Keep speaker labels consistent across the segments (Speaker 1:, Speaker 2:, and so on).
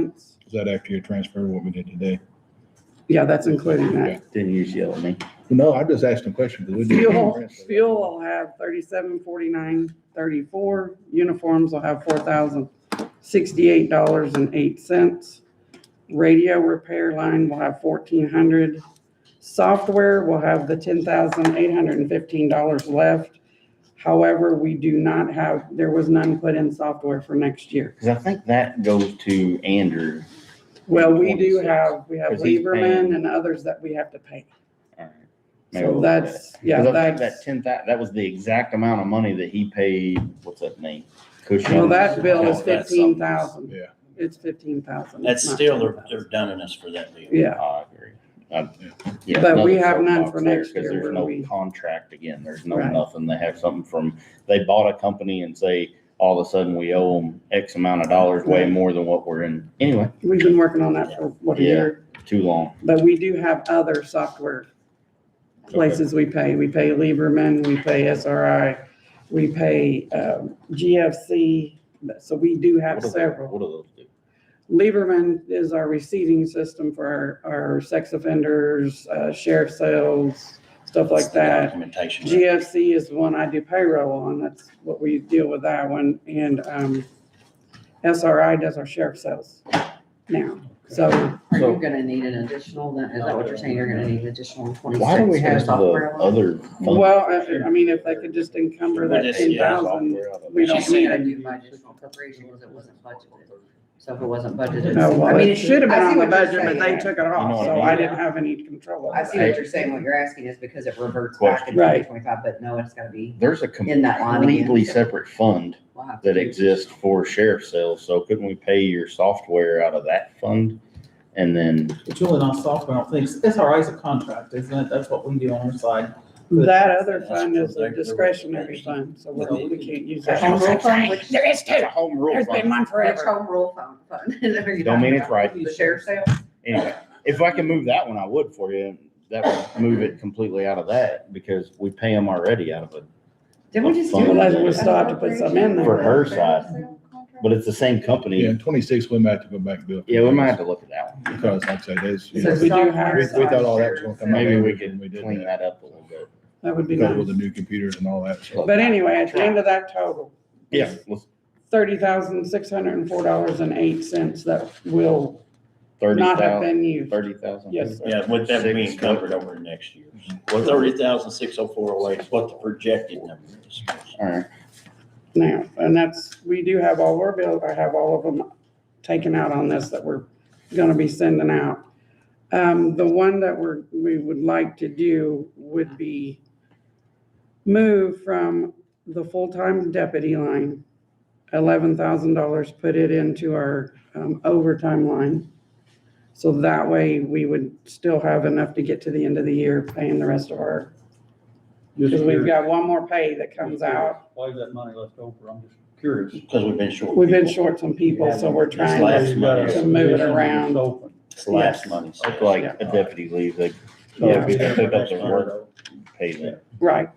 Speaker 1: cents.
Speaker 2: Is that after your transfer, what we did today?
Speaker 1: Yeah, that's including that.
Speaker 3: Didn't you yell at me?
Speaker 2: No, I just asked a question. 'cause we did the
Speaker 1: Fuel,
Speaker 2: transfer.
Speaker 1: fuel will have thirty-seven, forty-nine, thirty-four. Uniforms will have four thousand sixty-eight dollars and eight cents. Radio repair line will have fourteen hundred. Software will have the ten thousand eight hundred and fifteen dollars left. However, we do not have, there was none put in software for next year.
Speaker 3: Because I think that goes to Andrew.
Speaker 1: Well, we do have, we have
Speaker 3: Because he's paying-
Speaker 1: Lieberman and others that we have to pay.
Speaker 3: All right. Maybe
Speaker 1: So
Speaker 3: we'll-
Speaker 1: that's, yeah,
Speaker 3: 'Cause uh, I think
Speaker 1: that's.
Speaker 3: That ten thou, that was the exact amount of money that he paid, what's that name? Cushing.
Speaker 1: Well, that bill is
Speaker 4: No, that's
Speaker 1: fifteen thousand.
Speaker 2: Yeah.
Speaker 1: It's fifteen thousand.
Speaker 4: That's still, they're, they're dunning us for that deal.
Speaker 1: Yeah,
Speaker 3: I agree. I- yeah,
Speaker 1: But we
Speaker 3: nothing's
Speaker 1: have
Speaker 3: off
Speaker 1: none
Speaker 3: box
Speaker 1: for
Speaker 3: there
Speaker 1: next
Speaker 3: 'cause
Speaker 1: year where
Speaker 3: There's no
Speaker 1: we-
Speaker 3: contract again. There's no
Speaker 1: Right.
Speaker 3: nothing. They have something from, they bought a company and say, all of a sudden we owe them X amount of dollars, way
Speaker 1: Right.
Speaker 3: more than what we're in. Anyway,
Speaker 1: we've been working on that for what a
Speaker 3: Yeah.
Speaker 1: year,
Speaker 3: too long.
Speaker 1: but we do have other software places we pay. We pay Lieberman, we pay SRI, we pay, um, GFC. So we do have
Speaker 3: What do-
Speaker 1: several.
Speaker 3: What do those do?
Speaker 1: Lieberman is our receiving system for our, our sex offenders, uh, sheriff sales, stuff like
Speaker 4: It's the
Speaker 1: that.
Speaker 4: Documentation.
Speaker 1: GFC is the one I do payroll on, that's what we deal with that one, and, um, SRI does our sheriff sales now, so,
Speaker 5: Are
Speaker 3: So-
Speaker 5: you gonna need an additional, then, is that what you're saying, you're gonna need an additional twenty-six
Speaker 3: Why do we
Speaker 5: for the
Speaker 3: have the
Speaker 5: software? line?
Speaker 3: other? funds?
Speaker 1: well, I, I mean, if they could just encumber that
Speaker 4: Well, this-
Speaker 1: ten
Speaker 4: yeah,
Speaker 1: thousand, we
Speaker 5: I don't
Speaker 1: don't
Speaker 5: think
Speaker 1: need
Speaker 5: I
Speaker 1: it.
Speaker 5: do my additional appropriation because it wasn't budgeted, so if it wasn't budgeted.
Speaker 1: No,
Speaker 5: I
Speaker 1: well,
Speaker 5: mean,
Speaker 1: it
Speaker 5: if you-
Speaker 1: should have been
Speaker 5: I see
Speaker 1: on the
Speaker 5: what you're
Speaker 1: budget, but they
Speaker 5: saying.
Speaker 1: took it
Speaker 3: You know
Speaker 1: off,
Speaker 3: what I
Speaker 1: so
Speaker 3: mean?
Speaker 1: I didn't have any control
Speaker 5: I
Speaker 1: over
Speaker 5: see
Speaker 1: that.
Speaker 5: what you're saying, what you're asking is because it reverts back
Speaker 3: Question.
Speaker 5: into
Speaker 1: Right.
Speaker 5: twenty twenty-five, but no, it's gotta be,
Speaker 3: There's a
Speaker 5: In that line again.
Speaker 3: completely separate fund
Speaker 5: we'll have to.
Speaker 3: that exists for sheriff's sales, so couldn't we pay your software out of that fund? And then,
Speaker 6: It's really not software, I don't think. SRI is a contract, isn't it? That's what we do on our side.
Speaker 1: That other fund is a discretionary fund, so we're- we can't use that.
Speaker 5: Home rule fund, which, which
Speaker 3: it's a home rule fund.
Speaker 1: one
Speaker 5: home rule fund, fund? Are you
Speaker 3: Don't mean
Speaker 5: talking
Speaker 3: it's
Speaker 5: about?
Speaker 3: right.
Speaker 5: The sheriff's sale?
Speaker 3: Anyway, if I can move that one, I would for you. That would move it completely out of that because we pay them already out of it.
Speaker 5: Didn't we just do?
Speaker 3: Well,
Speaker 5: that?
Speaker 3: we
Speaker 1: still have to put some in there.
Speaker 3: For her side. But it's the same
Speaker 2: Yeah,
Speaker 3: company.
Speaker 2: twenty-six, we might have to go back and do it.
Speaker 3: Yeah, we might have to look at that one.
Speaker 2: Because like I said, there's, you
Speaker 1: So
Speaker 2: know,
Speaker 1: we
Speaker 2: we
Speaker 1: do have-
Speaker 2: we thought all that was gonna come out.
Speaker 3: Maybe we
Speaker 2: later when
Speaker 3: could
Speaker 2: did
Speaker 3: clean that up a little bit.
Speaker 1: That would be
Speaker 2: Because with
Speaker 1: nice,
Speaker 2: the new computers and all that, so.
Speaker 1: but anyway, at the end of that total,
Speaker 3: Yeah, let's-
Speaker 1: thirty thousand, six hundred and four dollars and eight cents that will
Speaker 3: thirty
Speaker 1: not have
Speaker 3: thousand,
Speaker 1: been used.
Speaker 3: thirty thousand.
Speaker 1: Yes, sir.
Speaker 4: Yeah, with that
Speaker 3: Six.
Speaker 4: being covered over next year. Thirty thousand, six oh four oh eight is what the projected number is.
Speaker 3: All right.
Speaker 1: Now, and that's, we do have all our bill, I have all of them taken out on this that we're gonna be sending out. Um, the one that we're, we would like to do would be move from the full-time deputy line, eleven thousand dollars, put it into our um, overtime line. So that way, we would still have enough to get to the end of the year paying the rest of our, because we've got one more pay that comes out.
Speaker 6: Why is that money left over? I'm just curious.
Speaker 4: Because we've been short.
Speaker 1: We've been
Speaker 4: people.
Speaker 1: short some people, so we're
Speaker 4: It's
Speaker 1: trying
Speaker 4: last
Speaker 1: to,
Speaker 4: money.
Speaker 1: to move it around.
Speaker 4: It's last money. so-
Speaker 3: It's like a deputy leaves, they
Speaker 1: Yeah.
Speaker 3: they pick up their work pay them.
Speaker 1: right,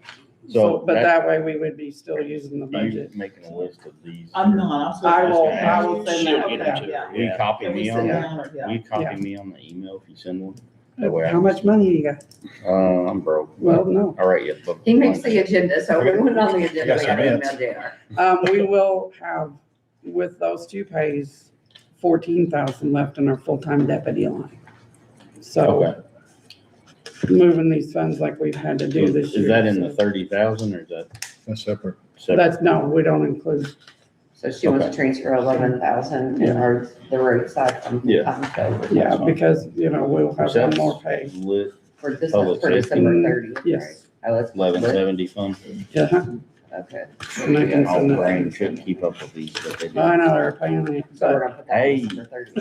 Speaker 1: so,
Speaker 3: So
Speaker 1: but
Speaker 3: that,
Speaker 1: that way we would be still using the
Speaker 3: you
Speaker 1: budget.
Speaker 3: making a list of these?
Speaker 6: I'm not.
Speaker 1: I
Speaker 6: was
Speaker 1: will,
Speaker 6: just
Speaker 1: I will
Speaker 6: gonna ask
Speaker 1: send
Speaker 6: you.
Speaker 1: that
Speaker 4: She'll get
Speaker 1: out.
Speaker 4: it to her,
Speaker 6: Yeah.
Speaker 3: Will you
Speaker 4: yeah.
Speaker 3: copy
Speaker 6: Can we
Speaker 3: me
Speaker 6: send
Speaker 3: on
Speaker 6: that
Speaker 3: that?
Speaker 6: out?
Speaker 3: Will
Speaker 6: Yeah.
Speaker 3: you copy
Speaker 1: Yeah.
Speaker 3: me on the email if you send one? That way I-
Speaker 1: How much money you got?
Speaker 3: Uh, I'm broke.
Speaker 1: Well, no.
Speaker 3: All right, yeah. but-
Speaker 5: He makes the agenda, so everyone on the agenda,
Speaker 2: Yes,
Speaker 5: we
Speaker 2: I
Speaker 5: have
Speaker 2: meant.
Speaker 5: email JR.
Speaker 1: Um, we will have, with those two pays, fourteen thousand left in our full-time deputy line. So
Speaker 3: Okay.
Speaker 1: moving these funds like we've had to do this year.
Speaker 3: Is that in the
Speaker 1: so-
Speaker 3: thirty thousand or is that
Speaker 2: That's separate.
Speaker 3: separate?
Speaker 1: That's, no, we don't include,
Speaker 5: So she wants to transfer eleven thousand in her, the roadside from
Speaker 3: Yeah.
Speaker 5: Tomco
Speaker 1: yeah, because, you know, we'll have one
Speaker 3: That's
Speaker 1: more pay.
Speaker 3: Lit
Speaker 5: for this,
Speaker 3: Oh,
Speaker 5: for
Speaker 3: it's
Speaker 5: December
Speaker 1: fifteen?
Speaker 5: thirty.
Speaker 1: Yes.
Speaker 5: Oh, that's.
Speaker 3: eleven seventy fund.
Speaker 1: Uh-huh.
Speaker 5: Okay.
Speaker 1: And I can
Speaker 3: My
Speaker 1: send that.
Speaker 3: brain couldn't keep up with these, but they did.
Speaker 1: I know they're paying it,
Speaker 5: So
Speaker 1: but,
Speaker 5: we're gonna put that
Speaker 3: Hey.
Speaker 5: on December thirty.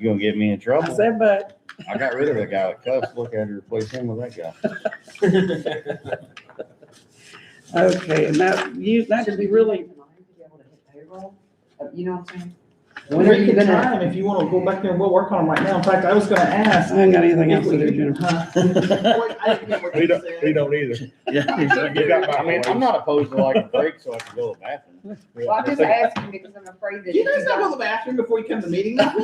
Speaker 3: You gonna get me in
Speaker 1: I
Speaker 3: trouble?
Speaker 1: said, but
Speaker 3: I got rid of that guy with cuffs. Look, I had to replace him with that guy.
Speaker 1: Okay, and that, you, that should be really,
Speaker 5: Be able to hit payroll, Uh, you know what I'm saying?
Speaker 6: When are you
Speaker 5: gonna?
Speaker 6: time, if you wanna go back there, we'll work on them right now. In fact, I was gonna ask.
Speaker 1: I ain't got anything else
Speaker 6: if
Speaker 1: to
Speaker 6: we
Speaker 1: do,
Speaker 6: could-
Speaker 1: Jennifer.
Speaker 6: huh? I didn't get what
Speaker 2: We
Speaker 6: you
Speaker 2: don't, we
Speaker 6: said.
Speaker 2: don't either. You got my
Speaker 3: I mean, I'm not opposed to like a break so I can go to the bathroom.
Speaker 7: Well, I'm just asking because I'm afraid that.
Speaker 6: You
Speaker 7: if
Speaker 6: guys
Speaker 7: you
Speaker 6: not
Speaker 7: don't-
Speaker 6: go to the bathroom before you come to the meeting now?